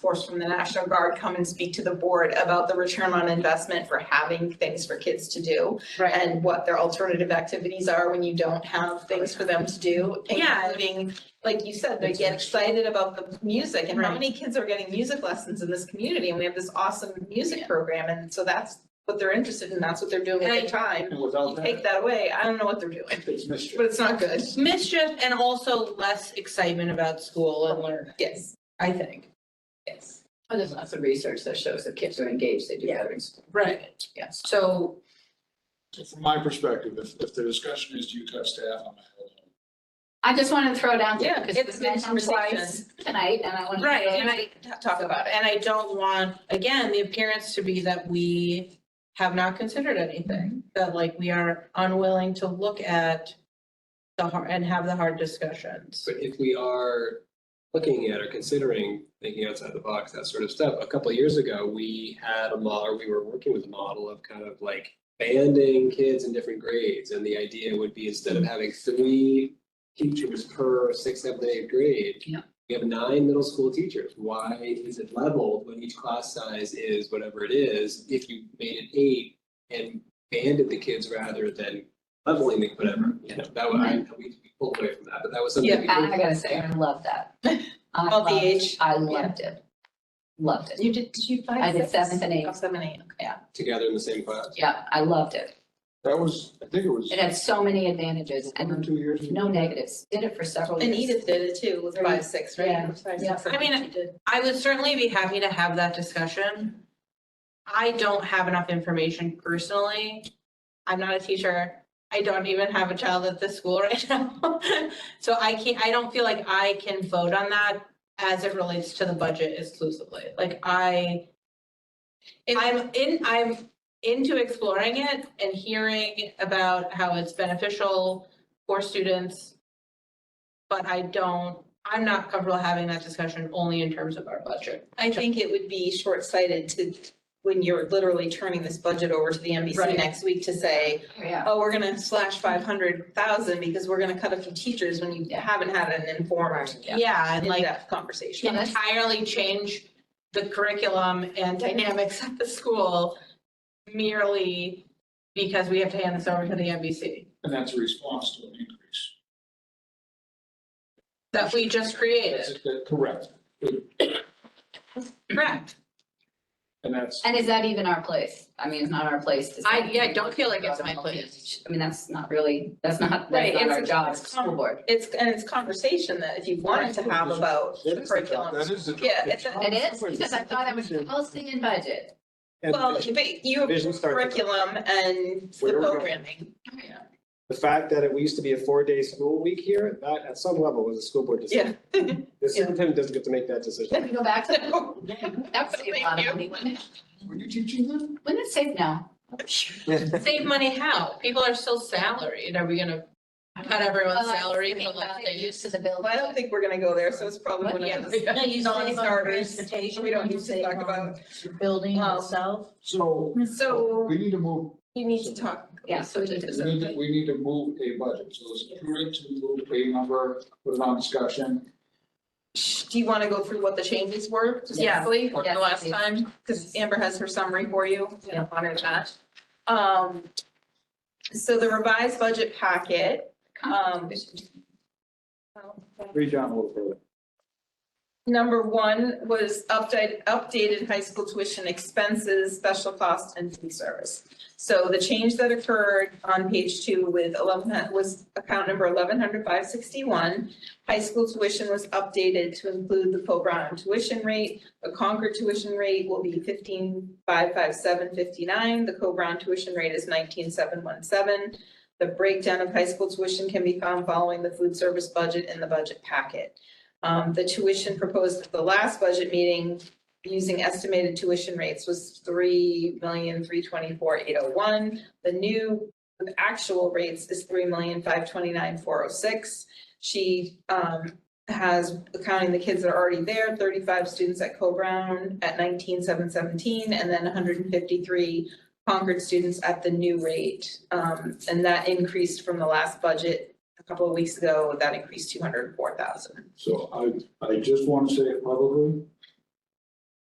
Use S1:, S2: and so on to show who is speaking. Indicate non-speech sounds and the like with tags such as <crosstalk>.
S1: force from the National Guard come and speak to the board about the return on investment for having things for kids to do
S2: Right.
S1: and what their alternative activities are when you don't have things for them to do,
S2: Yeah.
S1: including, like you said, they get excited about the music and how many kids are getting music lessons in this community and we have this awesome music program and so that's what they're interested in, that's what they're doing with their time.
S3: And
S1: You
S3: without
S1: take
S3: that,
S1: that away, I don't know what they're doing,
S3: it's
S1: but
S3: mischief.
S1: it's not good.
S2: Mischief and also less excitement about school and learning,
S1: Yes,
S2: I think.
S1: yes.
S4: Well, Oh, there's lots of research that shows if kids are engaged, they do better in school.
S2: Right.
S4: Yes.
S2: So,
S3: From my perspective, if, if the discussion is do you cut staff, I'm out.
S4: I just wanted to throw down,
S1: Yeah,
S4: because
S1: it's
S4: it's
S1: a good
S4: mentioned twice tonight, and I want to.
S2: right, and I
S1: Talk about it.
S2: And I don't want, again, the appearance to be that we have not considered anything, that like we are unwilling to look at the hard, and have the hard discussions.
S5: But if we are looking at or considering thinking outside the box, that sort of stuff, a couple of years ago, we had a model, we were working with a model of kind of like banding kids in different grades. And the idea would be instead of having three teachers per sixth, seventh, and eighth grade,
S4: Yeah.
S5: we have nine middle school teachers. Why is it leveled when each class size is whatever it is? If you made it eight and banded the kids rather than leveling the whatever,
S3: Mm-hmm.
S5: you know, that would, I, we we pulled away from that, but that was something.
S1: Yeah,
S5: we
S4: And I gotta say, I love that. <laughs> I
S1: All the
S4: loved-
S1: age,
S4: I loved it. Loved it.
S1: You did, did you find?
S4: I did
S1: six?
S4: seventh and eighth.
S1: Oh, seven, eight, okay.
S5: together in the same class.
S4: Yeah, I loved it.
S3: That was, I think it was
S4: It had so many advantages
S3: one or
S4: and
S3: two years. ago.
S4: no negatives. Did it for several years.
S1: And Edith did it too, was five, six, right?
S4: Yeah.
S1: Five,
S4: Yeah.
S1: six, seven,
S2: I mean,
S1: she did.
S2: I would certainly be happy to have that discussion. I don't have enough information personally. I'm not a teacher. I don't even have a child at this school <laughs> right now. So I can't, I don't feel like I can vote on that as it relates to the budget exclusively. Like I, I'm in, I'm into exploring it and hearing about how it's beneficial for students. But I don't I'm not comfortable having that discussion only in terms of our budget.
S1: I think it would be short-sighted to, when you're literally turning this budget over to the NBC
S2: Right.
S1: next week to say,
S4: Yeah.
S1: oh, we're gonna slash five hundred thousand because we're gonna cut a few teachers when you
S4: Yeah.
S1: haven't had an informed,
S4: Yeah.
S2: Yeah, and like
S1: in-depth conversation.
S4: Yeah, that's-
S2: entirely change the curriculum and dynamics at the school merely because we have to hand this over to the NBC
S3: And that's a response to an increase.
S2: that we just created.
S3: That's- that- Correct.
S2: Correct.
S3: And that's,
S4: And is that even our place? I mean, it's not our place to.
S2: I-
S4: say-
S2: yeah, I don't feel like it's my place.
S4: I mean, that's not really, that's not,
S1: Right,
S4: that's
S1: it's-
S4: not our job,
S1: it's
S4: it's school board.
S1: It's, and it's conversation that if you wanted to have about
S3: that
S1: the
S3: is the job,
S1: curriculum.
S3: that is the job.
S1: Yeah, it's a-
S4: It is, because I thought it was policy and budget.
S6: And
S1: Well,
S6: the-
S1: but you
S6: Vision
S1: have
S6: starts at the-
S1: curriculum and the
S6: Where we're going.
S1: programming. <laughs>
S6: the fact that it we used to be a four-day school week here, that at some level was a school board
S1: Yeah.
S6: decision.
S1: <laughs>
S6: The superintendent doesn't get to make that decision.
S4: Can we go back to that? That would save a lot of money, wouldn't it?
S3: Were you teaching them?
S4: Wouldn't it save now?
S2: Save money how? People are still salaried. Are we gonna cut everyone's
S4: Oh, I
S2: salary
S4: see.
S2: for less
S4: They're
S2: they used?
S4: Used to the bill.
S1: Well, I don't think we're gonna go there, so it's probably one of those.
S7: No, you
S1: Non-starters.
S7: save on transportation.
S1: We don't
S7: you
S1: need to
S7: save
S1: talk
S7: on
S1: about-
S7: the Building
S1: Um,
S7: itself.
S3: So
S1: So
S3: we need to move,
S1: you need to talk.
S4: Yeah, so we need
S3: we need, to- we need to move a budget. So it's prudent to move a number, put it on discussion.
S1: Do you want to go through what the changes were? just
S2: Yeah.
S1: briefly, From
S4: Yes,
S1: the last
S4: please.
S1: time, because Amber has her summary for you.
S4: Yeah.
S1: Honor that. Um, so the revised budget packet, um,
S4: Oh,
S3: Read down a little further.
S1: number one was updated, updated high school tuition expenses, special costs and food service. So the change that occurred on page two with eleven, was account number eleven hundred five sixty-one. High school tuition was updated to include the Poe Brown tuition rate. The Concord tuition rate will be fifteen five five seven fifty-nine. The Co Brown tuition rate is nineteen seven one seven. The breakdown of high school tuition can be found following the food service budget in the budget packet. Um, the tuition proposed at the last budget meeting using estimated tuition rates was three million, three twenty-four, eight oh one. The new actual rates is three million, five twenty-nine, four oh six. She, um, has, counting the kids that are already there, thirty-five students at Co-Brown at nineteen, seven seventeen, and then hundred and fifty-three Concord students at the new rate. Um, and that increased from the last budget a couple of weeks ago, that increased two hundred and four thousand.
S3: So I, I just want to say it publicly,